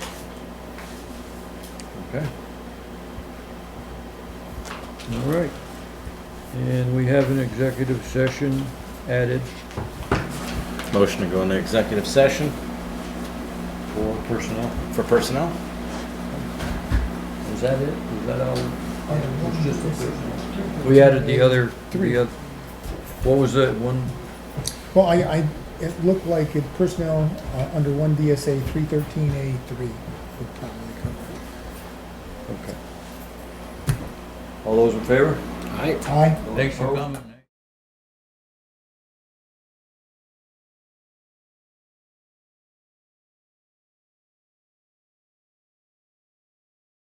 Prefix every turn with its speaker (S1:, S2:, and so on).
S1: Okay. All right. And we have an executive session added.
S2: Motion to go into executive session
S1: For personnel.
S2: for personnel?
S1: Is that it? Is that all? We added the other,
S3: Three.
S1: the other, what was that one?
S3: Well, I, I, it looked like it personnel, uh, under one DSA three thirteen A three would probably cover
S1: Okay. All those in favor?
S2: Aye.
S3: it. Aye?
S1: Thanks for coming.